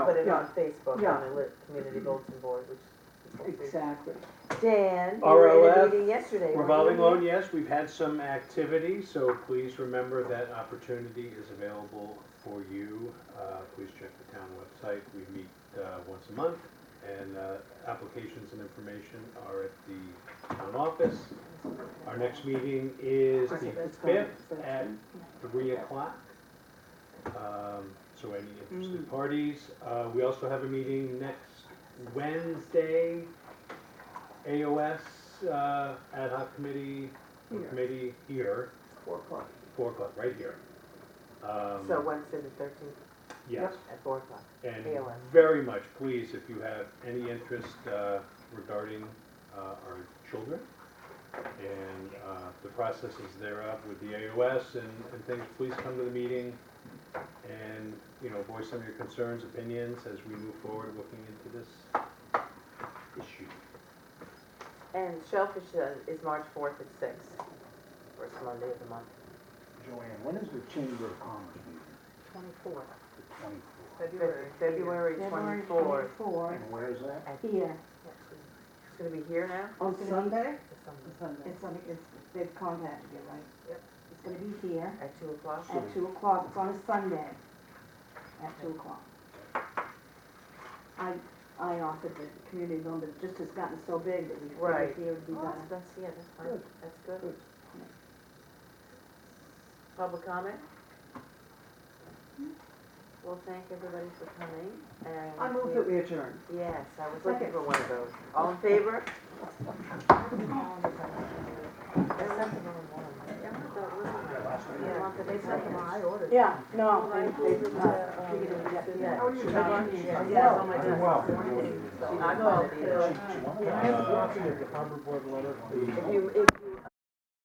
put it on Yeah. Facebook, Yeah. on the lit- community bulletin board, which. is- Exactly. Dan, you were in a RLF, meeting yesterday. weren't Revolving you? loan, yes, we've had some activity, so please remember that opportunity is available for you. Uh, Please check the town website, we meet uh, once a month, and uh, applications and information are at the town office. Our next meeting is Okay, the that's fine. fifth at three o'clock. Um, So any interested parties, Uh, we also have a meeting next Wednesday, AOS uh, ad hoc committee, Here. committee here, Four o'clock. four o'clock, right here. Um, So Wednesday the thirteenth Yes, at four o'clock. and AOS. very much please, if you have any interest uh, regarding uh, our children and uh, the processes thereof with the AOS and, and things, please come to the meeting and, you know, voice some of your concerns, opinions as we move forward looking into this issue. And Shellfish uh, is March fourth at six, first Monday of the month. Joanne, when is the Chamber of Commerce meeting? Twenty-fourth. The twenty-fourth. February. February February twenty-fourth. twenty-four, And where is that? here, It's gonna be here now? on Sunday, It's on- it's, on- it's, they've contacted you, right? Yep. It's gonna be here At two o'clock? at two o'clock, it's on a Sunday, at two o'clock. I, I offered the community room, but it just has gotten so big that we Right. figured here would be Oh, that's, better. that's, yeah, that's fine, Good. that's good. Good. Public comment? Well, thank everybody for coming, and. I move that we adjourn. Yes, I was looking Second. for one of those. All in favor? ordered. Yeah, no, Oh, I they, they, ordered, uh, uh, figured it would get yeah. here. How are you? Yeah. Yeah, oh my I'm God. well. I called you. She- she wanted Yeah, I have a to- copy Uh, If you, if you